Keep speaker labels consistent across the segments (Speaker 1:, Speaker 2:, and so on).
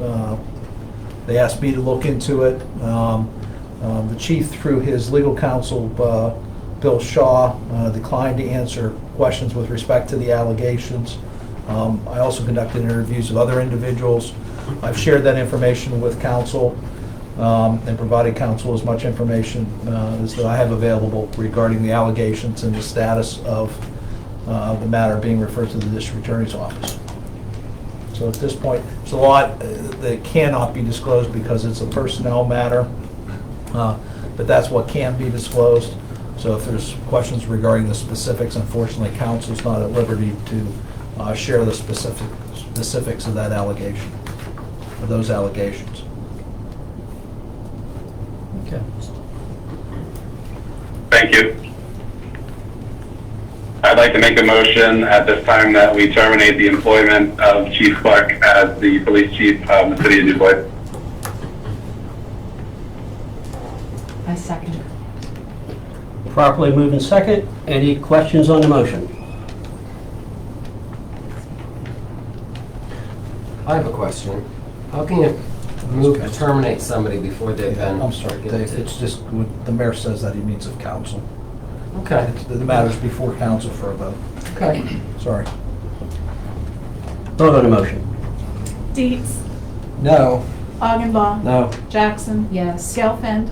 Speaker 1: uh, they asked me to look into it. Um, um, The chief, through his legal counsel, uh, Bill Shaw, uh, declined to answer questions with respect to the allegations. Um, I also conducted interviews of other individuals. I've shared that information with counsel um, and provided counsel as much information uh, as that I have available regarding the allegations and the status of uh, the matter being referred to the district attorney's office. So at this point, it's a lot uh, that cannot be disclosed because it's a personnel matter, uh, but that's what can be disclosed. So if there's questions regarding the specifics, unfortunately, counsel's not at liberty to uh, share the specific, specifics of that allegation, of those allegations.
Speaker 2: Okay.
Speaker 3: Thank you. I'd like to make a motion at this time that we terminate the employment of Chief Clark as the police chief of the city of DuBois.
Speaker 4: I second.
Speaker 2: Properly moved and second. Any questions on the motion?
Speaker 5: I have a question. How can you move to terminate somebody before they've been?
Speaker 1: I'm sorry, Dave,
Speaker 5: guilty?
Speaker 1: it's just, what the mayor says that he means of counsel.
Speaker 5: Okay,
Speaker 1: It's- The matter's before counsel for a vote,
Speaker 5: okay.
Speaker 1: sorry.
Speaker 2: Vote on the motion.
Speaker 6: Dietz.
Speaker 5: No.
Speaker 6: Augenbaum.
Speaker 5: No.
Speaker 6: Jackson.
Speaker 4: Yes.
Speaker 6: Gelfand.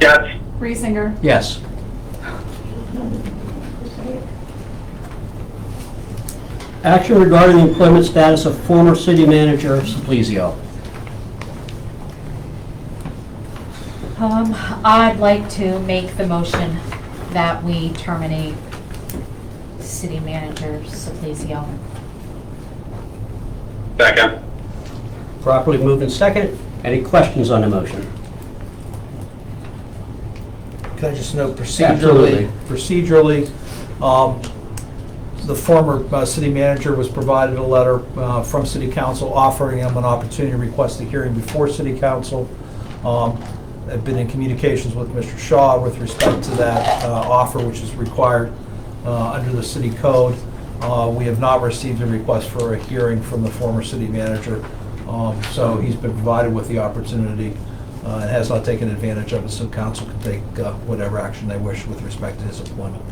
Speaker 3: Yes,
Speaker 6: Reesinger.
Speaker 2: Yes. Action regarding the employment status of former city manager Simplesio.
Speaker 4: Um, I'd like to make the motion that we terminate city manager Saplesio.
Speaker 3: second.
Speaker 2: Properly moved and second. Any questions on the motion?
Speaker 1: Can I just note procedurally,
Speaker 5: Absolutely.
Speaker 1: procedurally, um, the former uh, city manager was provided a letter uh, from city council offering him an opportunity to request a hearing before city council. Um, I've been in communications with Mr. Shaw with respect to that uh, offer, which is required uh, under the city code. Uh, We have not received a request for a hearing from the former city manager. Um, So he's been provided with the opportunity uh, and has not taken advantage of it, so council can take uh, whatever action they wish with respect to his appointment.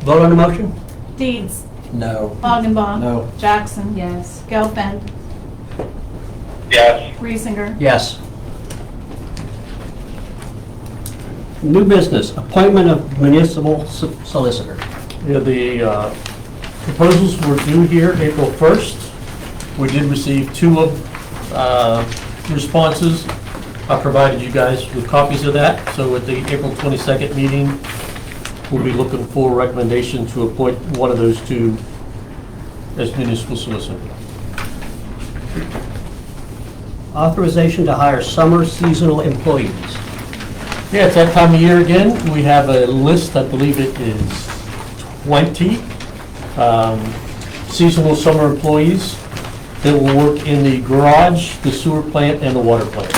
Speaker 2: Vote on the motion?
Speaker 6: Dietz.
Speaker 5: No.
Speaker 6: Augenbaum.
Speaker 5: No.
Speaker 6: Jackson.
Speaker 4: Yes.
Speaker 6: Gelfand.
Speaker 3: Yes,
Speaker 6: Reesinger.
Speaker 2: Yes. New business, appointment of municipal so- solicitor.
Speaker 7: Yeah, the uh, proposals were due here April 1st. We did receive two of uh, responses. I provided you guys with copies of that, so at the April 22nd meeting, we'll be looking for a recommendation to appoint one of those two as municipal solicitor.
Speaker 2: Authorization to hire summer seasonal employees.
Speaker 7: Yeah, it's that time of year again. We have a list, I believe it is 20 um, seasonal summer employees that will work in the garage, the sewer plant, and the water plant.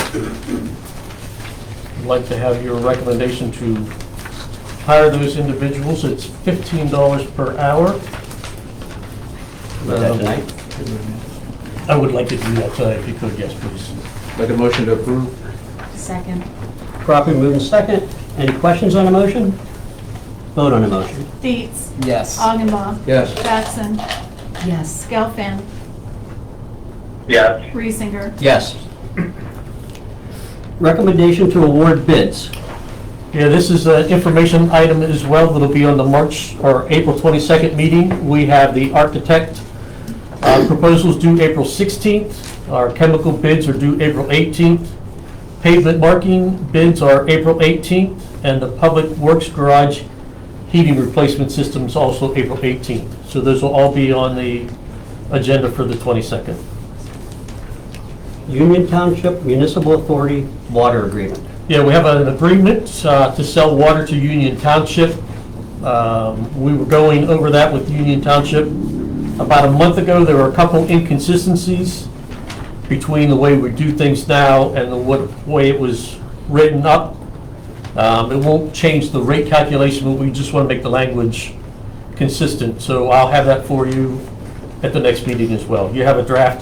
Speaker 7: I'd like to have your recommendation to hire those individuals. It's $15 per hour. Um,
Speaker 2: Is that tonight?
Speaker 7: I would like to do that tonight if you could, yes, please.
Speaker 5: Make a motion to approve?
Speaker 4: Second.
Speaker 2: Properly moved and second. Any questions on the motion? Vote on the motion.
Speaker 6: Dietz.
Speaker 5: Yes.
Speaker 6: Augenbaum.
Speaker 5: Yes.
Speaker 6: Jackson.
Speaker 4: Yes.
Speaker 6: Gelfand.
Speaker 3: yes,
Speaker 6: Reesinger.
Speaker 2: Yes. Recommendation to award bids.
Speaker 7: Yeah, this is an information item as well that'll be on the March or April 22nd meeting. We have the architect uh, proposals due April 16th. Our chemical bids are due April 18th. Pavement marking bids are April 18th, and the public works garage heating replacement systems also April 18th. So those will all be on the agenda for the 22nd.
Speaker 2: Union Township Municipal Authority Water Agreement.
Speaker 7: Yeah, we have an agreement uh, to sell water to Union Township. Um, We were going over that with Union Township about a month ago. There were a couple inconsistencies between the way we do things now and the what- way it was written up. Um, It won't change the rate calculation, but we just want to make the language consistent. So I'll have that for you at the next meeting as well. You have a draft